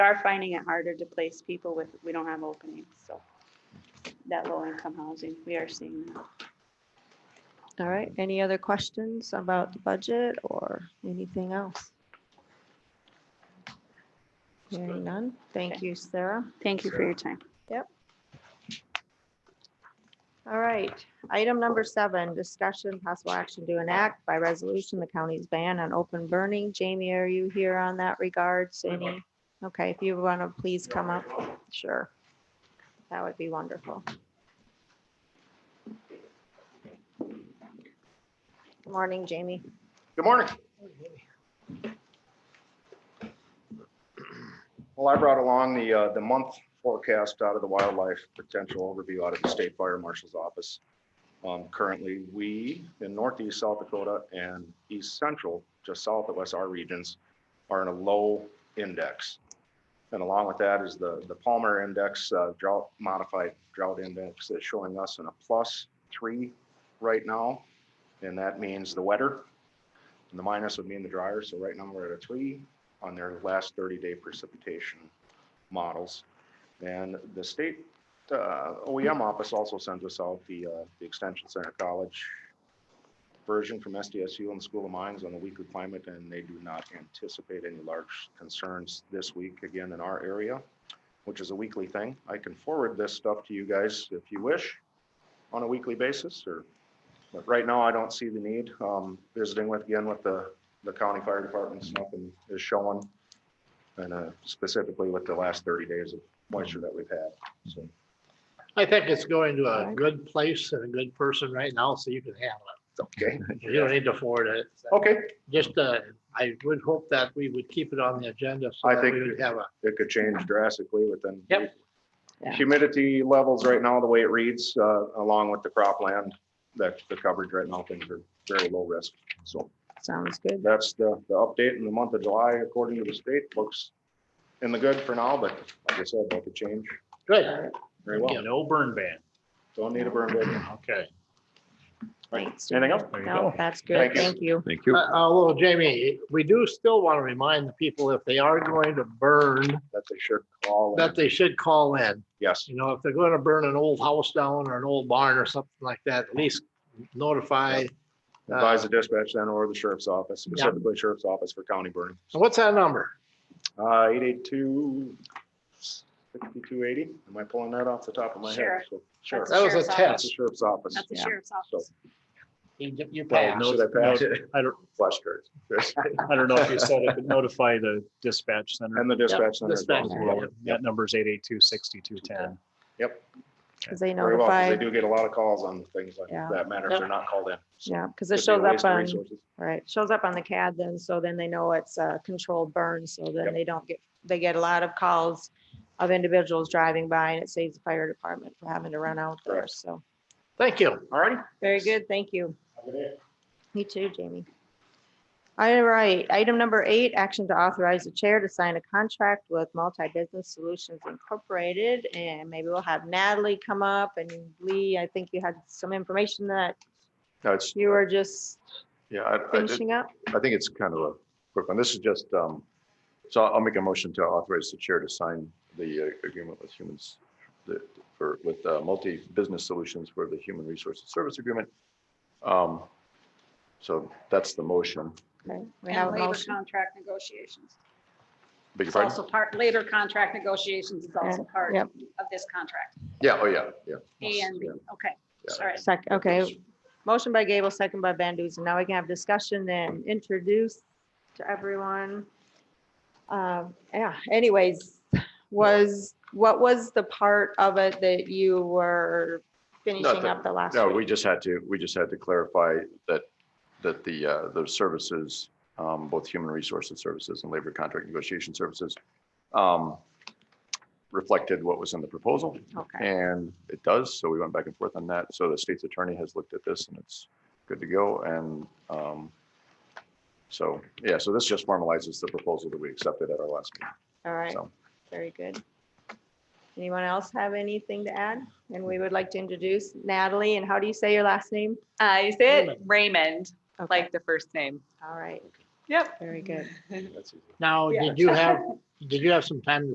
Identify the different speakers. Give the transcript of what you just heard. Speaker 1: are finding it harder to place people with, we don't have openings, so. That low income housing, we are seeing that.
Speaker 2: All right, any other questions about the budget or anything else? Hearing none, thank
Speaker 1: Okay.
Speaker 2: you, Sarah.
Speaker 1: Thank you for your time.
Speaker 2: All right, item number seven, discussion, possible action to enact by resolution, the county's ban on open burning. Jamie, are you here on that regards? Any? Okay, if you want to please come up, sure. That would be wonderful. Good Morning, Jamie.
Speaker 3: Good morning. Well, I brought along the, uh, the month forecast out of the wildlife potential overview out of the state fire marshal's office. Um, currently, we in northeast South Dakota and east central, just south of us, our regions are in a low index. And along with that is the, the Palmer Index, uh, drought modified drought index that's showing us in a plus three right now. And that means the wetter, and the minus would mean the drier, so right now we're at a three on their last thirty-day precipitation models. And the state uh, OEM office also sends us out the, uh, the Extension Center College version from SDSU and the School of Mines on the weekly climate, and they do not anticipate any large concerns this week again in our area, which is a weekly thing. I can forward this stuff to you guys if you wish on a weekly basis, or but right now, I don't see the need. Um, visiting with, again, with the, the county fire departments, nothing is showing. And, uh, specifically with the last thirty days of moisture that we've had, so.
Speaker 4: I think it's going to a
Speaker 2: Alright.
Speaker 4: good place and a good person right now, so you can handle
Speaker 3: Okay,
Speaker 4: it. You don't need to forward it.
Speaker 3: okay,
Speaker 4: Just, uh, I would hope that we would keep it on the agenda so
Speaker 3: I
Speaker 4: that
Speaker 3: think-
Speaker 4: we would have a,
Speaker 3: it could change drastically within.
Speaker 4: Yep.
Speaker 2: Yeah.
Speaker 3: Humidity levels right now, the way it reads, uh, along with the cropland, that the coverage right now, things are very low risk. So
Speaker 2: Sounds good.
Speaker 3: that's the, the update in the month of July, according to the state, looks in the good for now, but like I said, that could change
Speaker 4: good.
Speaker 3: very well.
Speaker 4: Yeah, No burn ban.
Speaker 3: Don't need a burn ban.
Speaker 4: Okay.
Speaker 2: Thanks.
Speaker 3: Anything
Speaker 2: Jamie.
Speaker 3: else?
Speaker 5: There you
Speaker 2: No,
Speaker 5: go.
Speaker 2: that's good.
Speaker 3: Thank you.
Speaker 2: Thank you.
Speaker 5: Thank
Speaker 4: Uh,
Speaker 5: you.
Speaker 4: Although Jamie, we do still want to remind the people if they are going to burn,
Speaker 3: That they should call.
Speaker 4: that they should call in.
Speaker 3: Yes,
Speaker 4: You know, if they're going to burn an old house down or an old barn or something like that, at least notify. uh,
Speaker 3: advise the dispatch center or the sheriff's office, specifically sheriff's office for county burning.
Speaker 4: So What's that number?
Speaker 3: Uh, eight eight two sixty-two eighty, am I pulling that off the top of my head?
Speaker 1: Sheriff.
Speaker 3: So, Sheriff,
Speaker 4: That was
Speaker 1: Sheriff's
Speaker 4: a
Speaker 1: office.
Speaker 3: that's
Speaker 1: That's the
Speaker 3: the sheriff's office.
Speaker 4: test.
Speaker 2: Yeah.
Speaker 1: sheriff's
Speaker 3: So,
Speaker 1: office.
Speaker 4: You you
Speaker 3: oh,
Speaker 4: passed.
Speaker 3: should I pass it?
Speaker 5: I don't,
Speaker 3: Flush cards.
Speaker 5: I don't know if you said it, but notify the dispatch center.
Speaker 3: And the dispatch center. as
Speaker 4: Dispatch,
Speaker 3: well.
Speaker 2: center,
Speaker 3: Yep,
Speaker 5: That number is eight eight two sixty-two ten.
Speaker 2: Because they
Speaker 3: Very well, 'cause they
Speaker 2: notified,
Speaker 3: do get a lot of calls on things like
Speaker 2: Yeah.
Speaker 3: that matter if
Speaker 4: Yep.
Speaker 3: they're not called in. So
Speaker 2: yeah, because
Speaker 3: could
Speaker 2: it
Speaker 3: be a
Speaker 2: shows
Speaker 3: waste
Speaker 2: up
Speaker 3: of
Speaker 2: on,
Speaker 3: resources.
Speaker 2: right, shows up on the CAD then, so then they know it's a controlled burn, so then
Speaker 3: Yep.
Speaker 2: they don't get, they get a lot of calls of individuals driving by, and it saves the fire department from having to run out there,
Speaker 3: Correct.
Speaker 2: so.
Speaker 4: Thank you.
Speaker 3: All righty.
Speaker 2: Very good, thank you.
Speaker 3: Have a good day.
Speaker 2: Me too, Jamie. All right, item number eight, action to authorize the chair to sign a contract with Multi Business Solutions Incorporated. And maybe we'll have Natalie come up and Lee, I think you had some information that
Speaker 6: No, it's,
Speaker 2: you were just
Speaker 6: yeah, I, I, did-
Speaker 2: finishing up.
Speaker 6: I think it's kind of a quick one. This is just, um, so I'll make a motion to authorize the chair to sign the uh, agreement with humans, the, for, with, uh, multi-business solutions for the human resources service agreement. Um, so that's the motion.
Speaker 2: Okay, We have
Speaker 7: And
Speaker 2: a
Speaker 7: labor
Speaker 2: motion.
Speaker 7: contract negotiations.
Speaker 6: Beg your
Speaker 7: It's
Speaker 6: pardon?
Speaker 7: also part, labor contract negotiations is also part
Speaker 2: Yep,
Speaker 7: of this contract.
Speaker 6: Yeah, oh, yeah, yeah.
Speaker 7: And,
Speaker 6: Yeah.
Speaker 7: okay,
Speaker 6: Yeah.
Speaker 7: all right.
Speaker 2: second, okay. Motion by Gable, second by Van Duzen. Now we can have discussion and introduce to everyone. Um, Yeah, anyways, was, what was the part of it that you were finishing
Speaker 6: Nothing.
Speaker 2: up the last?
Speaker 6: No,
Speaker 2: week?
Speaker 6: we just had to, we just had to clarify that, that the, uh, the services, um, both human resources services and labor contract negotiation services, um, reflected what was in the proposal,
Speaker 2: Okay,
Speaker 6: and it does, so we went back and forth on that. So the state's attorney has looked at this, and it's good to go, and, um, so, yeah, so this just formalizes the proposal that we accepted at our last meeting,
Speaker 2: all right,
Speaker 6: so.
Speaker 2: very good. Anyone else have anything to add? And we would like to introduce Natalie, and how do you say your last name?
Speaker 8: I Uh, you say it Raymond,
Speaker 2: Okay,
Speaker 8: like the first name.
Speaker 2: All right,
Speaker 8: Yep.
Speaker 2: very good.
Speaker 6: that's easy.
Speaker 4: Now,
Speaker 7: Yeah.
Speaker 4: did you have, did you have some time to